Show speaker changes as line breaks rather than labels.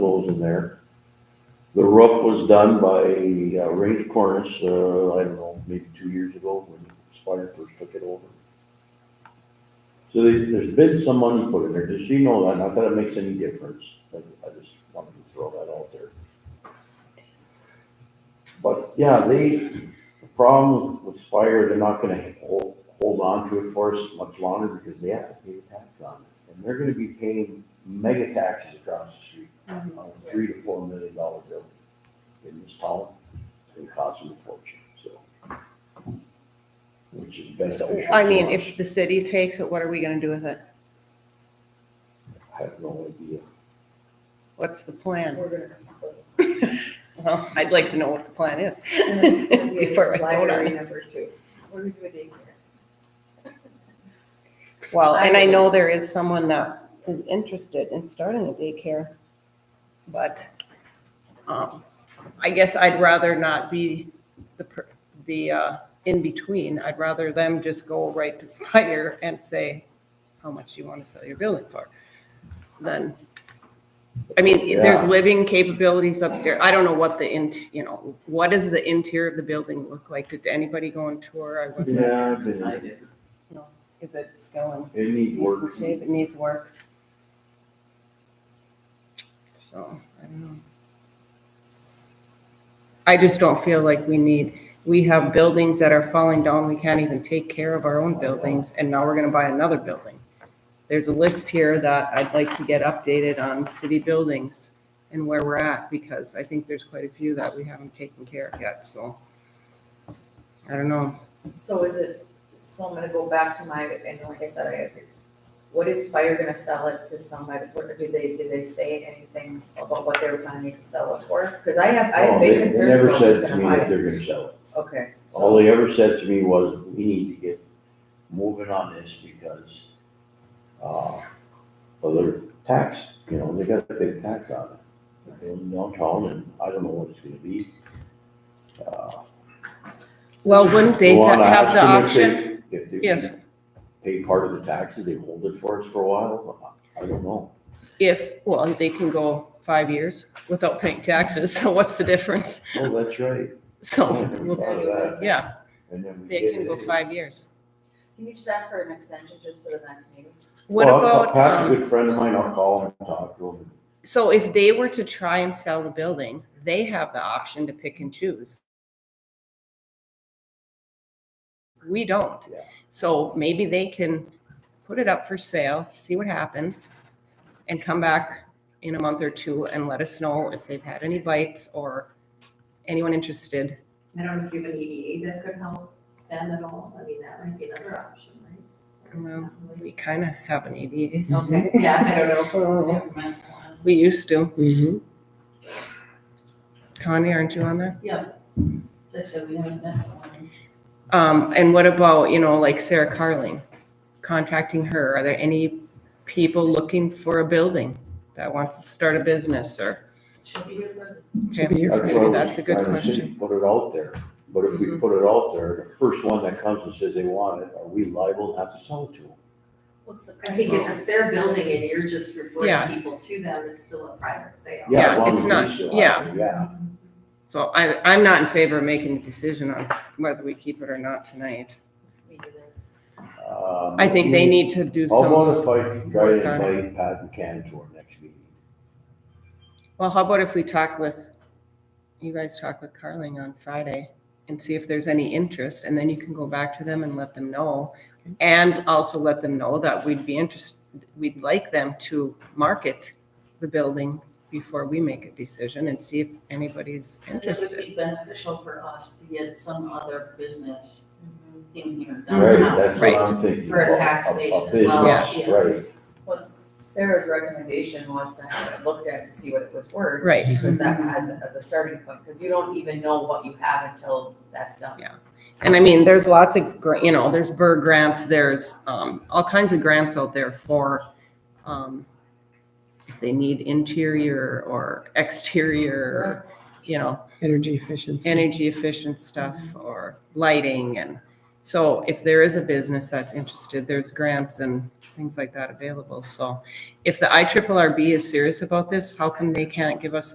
goes in there. The roof was done by uh, Range Cornice, uh, I don't know, maybe two years ago when Spire first took it over. So they- there's been some money put in there, does she know that, not that it makes any difference, but I just wanted to throw that out there. But yeah, they, the problem with Spire, they're not gonna hold, hold on to it for us much longer because they have to pay the tax on it. And they're gonna be paying mega taxes across the street
Mhm.
on a three to four million dollar building in this town. It's gonna cost them a fortune, so. Which is beneficial
So,
to
I mean,
us.
if the city takes it, what are we gonna do with it?
I have no idea.
What's the plan?
We're gonna come up with
Well, I'd like to know what the plan is.
And it's gonna be a
Before I vote on
library
it.
number two. We're gonna do a daycare.
Well, and I know there is someone that is interested in starting a daycare, but, um, I guess I'd rather not be the, per- the, uh, in-between. I'd rather them just go right to Spire and say, how much do you wanna sell your building for? Then, I mean, there's
Yeah.
living capabilities upstairs. I don't know what the in, you know, what does the interior of the building look like? Did anybody go on tour? I wasn't,
Yeah, I've been-
did.
is it still in?
it needs work.
decent shape, it needs work. So, I don't know. I just don't feel like we need, we have buildings that are falling down, we can't even take care of our own buildings, and now we're gonna buy another building. There's a list here that I'd like to get updated on city buildings and where we're at, because I think there's quite a few that we haven't taken care of yet, so. I don't know.
So is it, so I'm gonna go back to my, and like I said, I agree. What is Spire gonna sell it to somebody? What, do they, did they say anything about what they were planning to sell it for? Cause I have, I
Oh,
have
they-
big
they
concerns about
Never
who's
said to
gonna
me
buy
that
it.
they're gonna sell it.
Okay,
All
so,
they ever said to me was, we need to get moving on this because, uh, well, they're taxed, you know, they got a big tax on it. They're in downtown and I don't know what it's gonna be. Uh,
Well, wouldn't they
well, I
have
asked
the
them if they-
option?
If they
Yeah.
pay part of the taxes, they hold it for us for a while, I don't know.
If, well, they can go five years without paying taxes, so what's the difference?
Oh, that's right. I
So,
never thought of that.
anyways,
Yeah.
And then we
they
did
can go
it.
five years.
Can you just ask for an extension just to the next meeting?
What
Well,
about,
Pat's a
um,
good friend of mine, I'll call him and talk to him.
so if they were to try and sell the building, they have the option to pick and choose. We don't.
Yeah.
So maybe they can put it up for sale, see what happens, and come back in a month or two and let us know if they've had any bites or anyone interested.
I don't know if you have an EDA that could help them at all, I mean, that might be another option,
Well,
right?
We kind of have an EDA.
Okay, yeah, I don't know. Never mind.
We used to.
Mm-hmm.
Connie, aren't you on there?
Yeah, just so we haven't met one.
Um, and what about, you know, like Sarah Carling, contacting her? Are there any people looking for a building that wants to start a business or?
She'll be here
Okay,
for,
That's what I
Maybe
was
that's a good
trying to say,
question.
Put it out there, but if we
Mhm.
put it out there, the first one that comes and says they want it, are we liable to have to sell it to them?
What's the
I think if it's their building and you're just
Yeah.
referring people to them, it's still a private sale.
Yeah,
as long
it's
as we
not-
still have
yeah.
it, Yeah,
So I, I'm not in favor of making a decision on whether we keep it or not tonight.
Me neither.
um.
I think
Mm-hmm.
they need to do
How
some,
about if I try
work
to
on it.
invite Pat McCann to our next meeting?
well, how about if we talk with, you guys talk with Carling on Friday and see if there's any interest and then you can go back to them and let them know. And also let them know that we'd be interested, we'd like them to market the building before we make a decision and see if anybody's
And it would
interested.
be beneficial for us to get some other business
Mm-hmm.
in here
Right,
downtown.
that's what I'm
Right.
thinking.
Um, For a
about,
tax base as
business,
well,
Yes.
yeah.
Right,
What's Sarah's recommendation was to have it looked at to see what it was worth.
Right.
Because that has a- the starting point, because you don't even know what you have until that's done.
Yeah. And I mean, there's lots of, gra- you know, there's Burr grants, there's um, all kinds of grants out there for um, if they need interior or exterior, you know,
energy efficiency.
energy efficient stuff or lighting and So if there is a business that's interested, there's grants and things like that available. So if the IRRB is serious about this, how come they can't give us